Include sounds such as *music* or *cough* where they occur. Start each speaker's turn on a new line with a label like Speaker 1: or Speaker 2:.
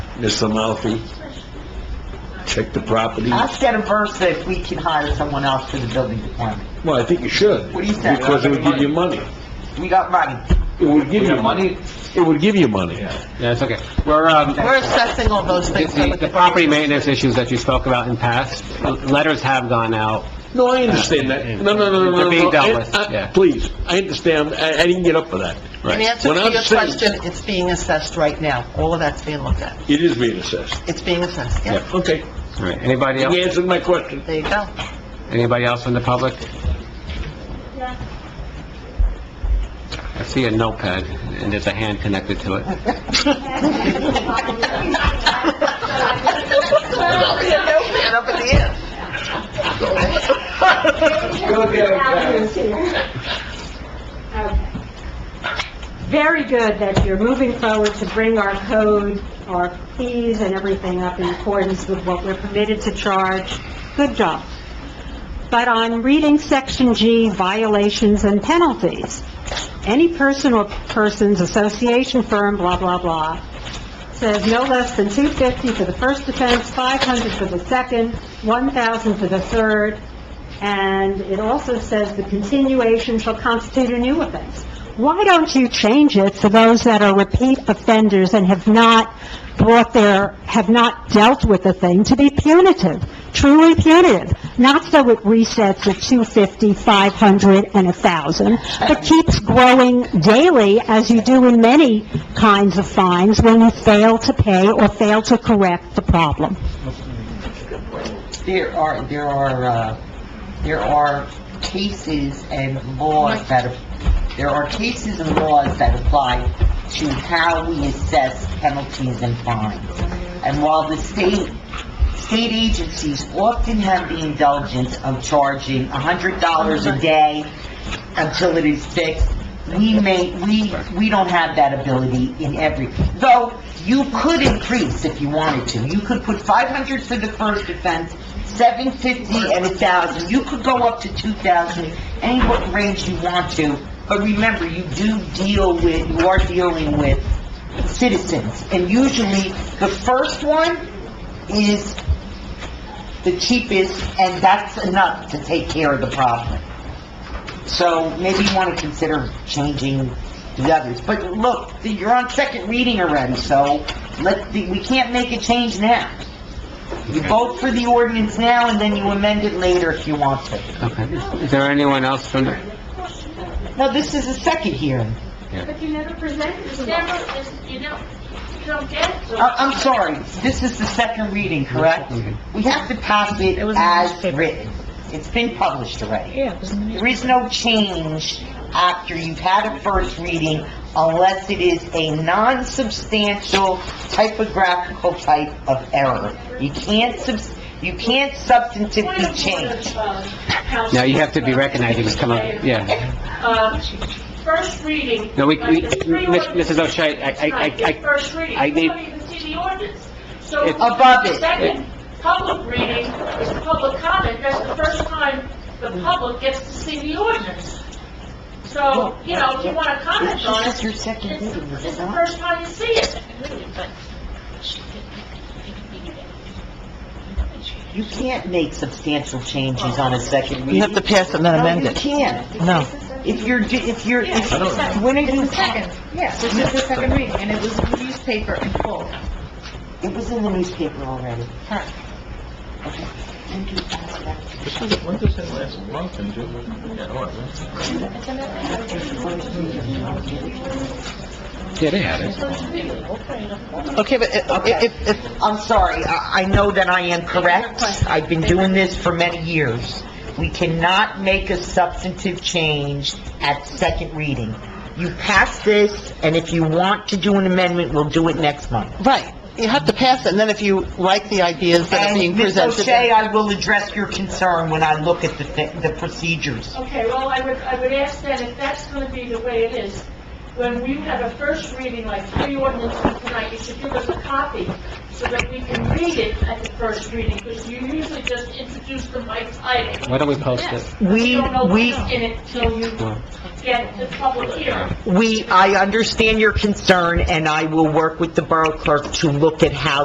Speaker 1: Mr. Amalfi. Check the property.
Speaker 2: Ask Adam first if we can hire someone else for the building department.
Speaker 1: Well, I think you should.
Speaker 2: What do you think?
Speaker 1: Because it would give you money.
Speaker 2: We got money.
Speaker 1: It would give
Speaker 3: We
Speaker 1: you
Speaker 3: got
Speaker 1: money. It would give you money.
Speaker 3: Yeah, it's okay. We're, um,
Speaker 2: We're assessing all those things.
Speaker 3: the, the property maintenance issues that you spoke about in past, letters have gone out.
Speaker 1: No, I understand that. No, no, no, no, no.
Speaker 3: They're being
Speaker 1: no.
Speaker 3: dealt
Speaker 1: I-
Speaker 3: with,
Speaker 1: I-
Speaker 3: yeah.
Speaker 1: Please, I understand. I, I didn't get up for that.
Speaker 2: In answer
Speaker 1: When
Speaker 2: to
Speaker 1: I'm
Speaker 2: your
Speaker 1: saying-
Speaker 2: question, it's being assessed right now. All of that's being looked at.
Speaker 1: It is being assessed.
Speaker 2: It's being assessed, yeah.
Speaker 1: Okay,
Speaker 3: All right, anybody
Speaker 1: you
Speaker 3: else,
Speaker 1: answered my question.
Speaker 2: There you go.
Speaker 3: anybody else in the public? I see a notepad, and there's a hand connected to it.
Speaker 2: And *laughs* up in the air. *laughs*
Speaker 4: Very good that you're moving forward to bring our code, our fees and everything up in accordance with what we're permitted to charge. Good job. But on reading Section G, violations and penalties, any person or persons, association, firm, blah, blah, blah, says no less than 250 for the first offense, 500 for the second, 1,000 for the third, and it also says the continuation shall constitute a new offense. Why don't you change it for those that are repeat offenders and have not brought their, have not dealt with the thing to be punitive, truly punitive? Not so it resets at 250, 500, and 1,000, but keeps growing daily as you do in many kinds of fines when you fail to pay or fail to correct the problem.
Speaker 2: There are, there are, uh, there are cases and laws that, there are cases and laws that apply to how we assess penalties and fines. And while the state, state agencies often have the indulgence of charging hundred dollars a day until it is fixed, we may, we, we don't have that ability in every, though you could increase if you wanted to. You could put five hundred for the first offense, seven fifty and a thousand. You could go up to two thousand, any what range you want to. But remember, you do deal with, you are dealing with citizens. And usually, the first one is the cheapest, and that's enough to take care of the problem. So maybe you want to consider changing the others. But look, you're on second reading already, so let, we can't make a change now. You vote for the ordinance now, and then you amend it later if you want to.
Speaker 3: Okay, is there anyone else from, the-
Speaker 2: No, this is a second hearing.
Speaker 4: But you never presented
Speaker 5: It's never, it's- you don't, you don't get it.
Speaker 2: I, Uh, I'm sorry, this is the second reading, correct? We have to pass it as written. It's been published already. There is no change after you've had a first reading unless it is a non-substantial typographical type of error. You can't subs, you can't substantively change.
Speaker 3: now you have to be recognized, you just come up, yeah.
Speaker 5: Uh, First reading.
Speaker 3: No, we, we,
Speaker 5: like the three
Speaker 3: Miss-
Speaker 5: ordinances
Speaker 3: Mrs. O'Shea, I, I,
Speaker 5: tonight,
Speaker 3: I- I,
Speaker 5: First reading.
Speaker 3: I need-
Speaker 5: Nobody even see the ordinance. So.
Speaker 3: It-
Speaker 2: Above it.
Speaker 5: Second, public reading is the public comment. That's the first time the public gets to see the ordinance. So, you know, if you want to
Speaker 2: It's
Speaker 5: comment on
Speaker 2: just
Speaker 5: it,
Speaker 2: your second
Speaker 5: it's,
Speaker 2: reading, is
Speaker 5: it's
Speaker 2: it
Speaker 5: the
Speaker 2: not?
Speaker 5: first time you see it.
Speaker 2: You can't make substantial changes on a second reading.
Speaker 6: You have to pass it and then amend
Speaker 2: No, you
Speaker 6: it.
Speaker 2: can't.
Speaker 6: No.
Speaker 2: If you're, do- if you're, if-
Speaker 1: I don't know.
Speaker 2: when are you,
Speaker 7: Second, yes, this is the second reading, and it was in the newspaper in full.
Speaker 2: it was in the newspaper already. Okay.
Speaker 8: When does that last month in June? Yeah, all right, that's-
Speaker 3: yeah, they had it.
Speaker 2: Okay, but
Speaker 6: uh,
Speaker 2: if, if... I'm sorry, I I know that I am correct. I've been doing this for many years. We cannot make a substantive change at second reading. You pass this, and if you want to do an amendment, we'll do it next month.
Speaker 6: Right. You have to pass it, and then if you like the ideas that are being
Speaker 2: And Ms.
Speaker 6: presented...
Speaker 2: O'Shea, I will address your concern when I look at the thi- the procedures.
Speaker 5: Okay, well, I would, I would ask then if that's going to be the way it is, when we have a first reading, like three ordinances tonight, you should give us a copy so that we can read it at the first reading, because you usually just introduce them by title.
Speaker 3: Why don't we post it?
Speaker 5: Yes,
Speaker 2: We-
Speaker 5: You don't know
Speaker 2: we-
Speaker 5: what's in it till you get the public hearing.
Speaker 2: We, I understand your concern, and I will work with the Borough Clerk to look at how